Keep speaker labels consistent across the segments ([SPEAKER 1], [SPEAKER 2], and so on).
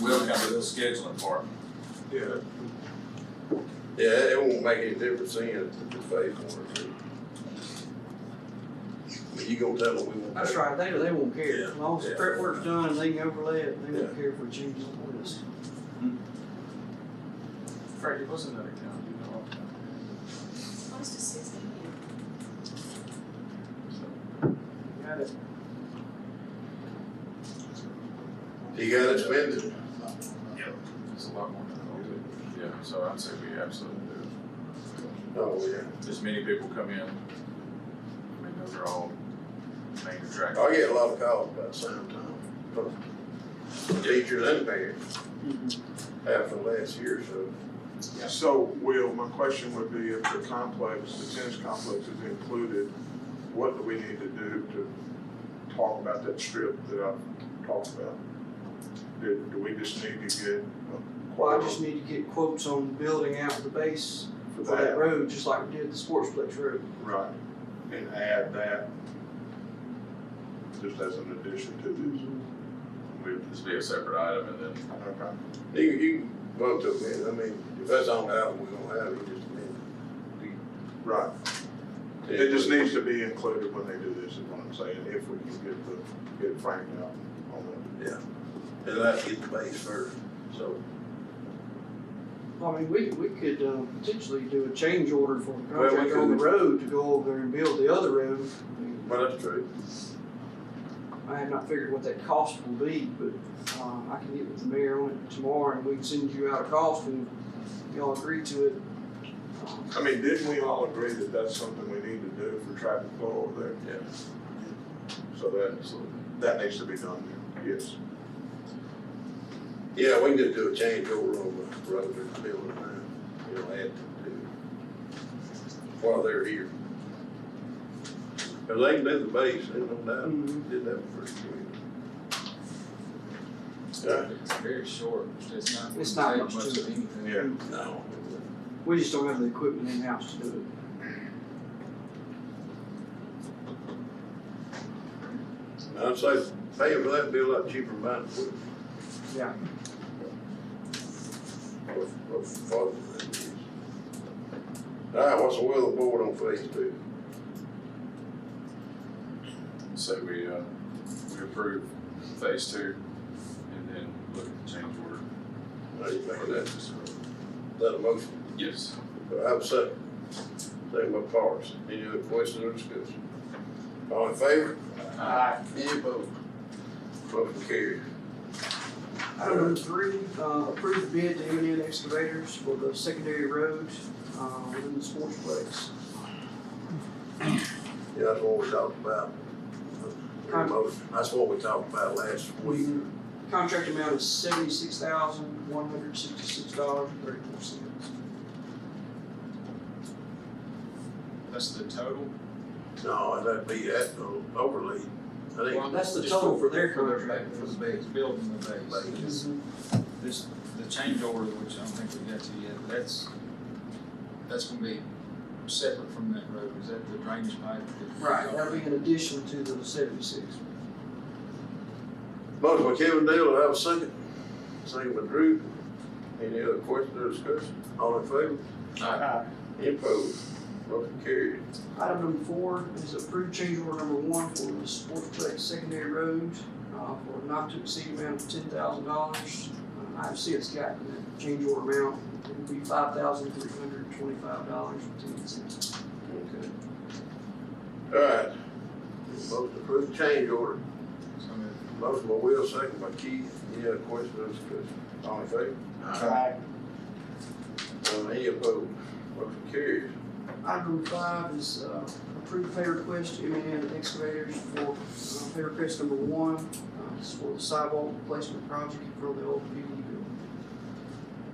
[SPEAKER 1] will handle the scheduling part.
[SPEAKER 2] Yeah.
[SPEAKER 3] Yeah, it it won't make any difference then if it's phase one or two. But You gonna tell them we won't.
[SPEAKER 4] That's right, they, they won't care, as long as the
[SPEAKER 3] Yeah.
[SPEAKER 4] prep work's done, they can overlay it, they
[SPEAKER 3] Yeah.
[SPEAKER 4] won't care if we change the list.
[SPEAKER 1] Frankie, Hmm. what's another county you know
[SPEAKER 5] Close to six million.
[SPEAKER 4] Got it.
[SPEAKER 3] You gotta spend it.
[SPEAKER 1] It's a lot more than Yeah, so I'd say we absolutely do.
[SPEAKER 3] Oh, yeah.
[SPEAKER 1] As many people come in, I mean, those are all main attractions.
[SPEAKER 3] I get a lot of calls about sometime. From Teachers and parents
[SPEAKER 4] Mm-hmm.
[SPEAKER 3] after last year, so.
[SPEAKER 2] So, Will, my question would be if the complex, the tennis complex is included, what do we need to do to talk about that strip that I've talked about? Do, do we just need to get a
[SPEAKER 4] Well, I
[SPEAKER 2] quote
[SPEAKER 4] just need to get quotes on building out the base
[SPEAKER 2] for
[SPEAKER 4] for that
[SPEAKER 2] that?
[SPEAKER 4] road, just like we did the Sportsplex Road.
[SPEAKER 2] Right, and add that just as an addition to this.
[SPEAKER 3] Mm-hmm.
[SPEAKER 2] We-
[SPEAKER 1] This be a separate item and then
[SPEAKER 2] Okay.
[SPEAKER 3] You, you can vote to amend, I mean, if that's on the album, we gonna have it, you just amend.
[SPEAKER 2] Right,
[SPEAKER 3] it.
[SPEAKER 2] it just needs to be included when they do this, is what I'm saying, if we can get the, get Frank out on that.
[SPEAKER 3] And that's get the base first, so.
[SPEAKER 4] I mean, we, we could, um, potentially do a change order for the
[SPEAKER 3] Well, we
[SPEAKER 4] contractor on the road to go over there and build the other road. I mean,
[SPEAKER 3] Well, that's true.
[SPEAKER 4] I have not figured what that cost will be, but, um, I can get with the mayor on it tomorrow and we can send you out a cost and y'all agree to it. Um,
[SPEAKER 2] I mean, didn't we all agree that that's something we need to do for traffic flow over there?
[SPEAKER 3] Yeah.
[SPEAKER 2] So that, that needs to be done, yes.
[SPEAKER 3] Yeah, we can just do a change over on the road and the building line, you know, add to, do while they're here. Cause they can do the base, they don't doubt,
[SPEAKER 4] mhm.
[SPEAKER 3] did that for years.
[SPEAKER 6] It's very short, it's not.
[SPEAKER 4] It's not
[SPEAKER 6] take
[SPEAKER 4] much
[SPEAKER 6] much
[SPEAKER 4] to
[SPEAKER 6] of anything.
[SPEAKER 2] Yeah.
[SPEAKER 3] No.
[SPEAKER 4] We just don't have the equipment in-house to do it.
[SPEAKER 3] I'd say paying for that would be a lot cheaper than buying equipment.
[SPEAKER 4] Yeah.
[SPEAKER 3] What- what father that is. All right, what's the will of the board on phase two?
[SPEAKER 1] say we, uh, we approve phase two and then look at the change order
[SPEAKER 3] How you
[SPEAKER 1] for
[SPEAKER 3] think
[SPEAKER 1] that.
[SPEAKER 3] that, that a motion?
[SPEAKER 1] Yes.
[SPEAKER 3] I have a second. Second by Parks. Any other questions or discussion? All in favor?
[SPEAKER 1] Aye.
[SPEAKER 3] Any opposed? Motion carried.
[SPEAKER 4] Item number three, uh, approved bid to M and N excavators for the secondary road, uh, within the sportsplex.
[SPEAKER 3] Yeah, that's what we talked about.
[SPEAKER 4] Aye.
[SPEAKER 3] That's what we talked about last week.
[SPEAKER 4] Contract amount is seventy-six thousand, one hundred sixty-six dollars and thirty-four cents.
[SPEAKER 6] That's the total?
[SPEAKER 3] No, that'd be that uh, overlay. I think,
[SPEAKER 4] That's the total for their
[SPEAKER 6] For
[SPEAKER 4] contract. Mm-hmm.
[SPEAKER 6] For the base, building the base. It's- This, the change order, which I don't think we got to yet, that's, that's gonna be separate from that road, is that the drainage pipe? that-
[SPEAKER 4] Right, that'll be in addition to the seventy-six.
[SPEAKER 3] motion by Kevin Dale, I have a second. Second by Drew. Any other questions or discussion? All in favor? Any opposed? Motion carried.
[SPEAKER 4] Item number four is approved change order number one for the sportsplex secondary road, uh, for not to exceed amount of ten thousand dollars. I've since gotten that change order amount, it would be five thousand three hundred twenty-five dollars and ten cents.
[SPEAKER 3] Okay. All right. Motion to approve change order.
[SPEAKER 6] So I'm gonna
[SPEAKER 3] Motion by Will, second by Keith. Any other questions or discussion? All in favor? Uh, any opposed? Motion carries.
[SPEAKER 4] Item number five is, uh, approved pay request to M and N excavators for, uh, pay request number one, uh, is for the sidewalk replacement project for the old PD building.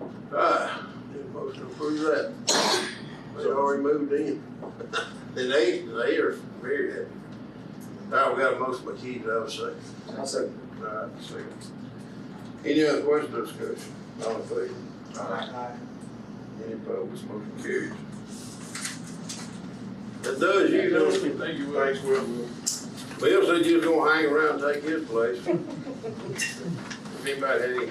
[SPEAKER 3] All right. Ah, Need a motion to approve that. They already moved in. And they, they are very happy. All right, we got a motion by Keith, I have a second.
[SPEAKER 6] I'll
[SPEAKER 3] second. All right, second. Any other questions or discussion? All in favor? Any opposed? Motion carries. That does you, don't it?
[SPEAKER 1] Thank you, Will.
[SPEAKER 2] Thanks, Will.
[SPEAKER 3] Bill said you was gonna hang around and take his place. If anybody had any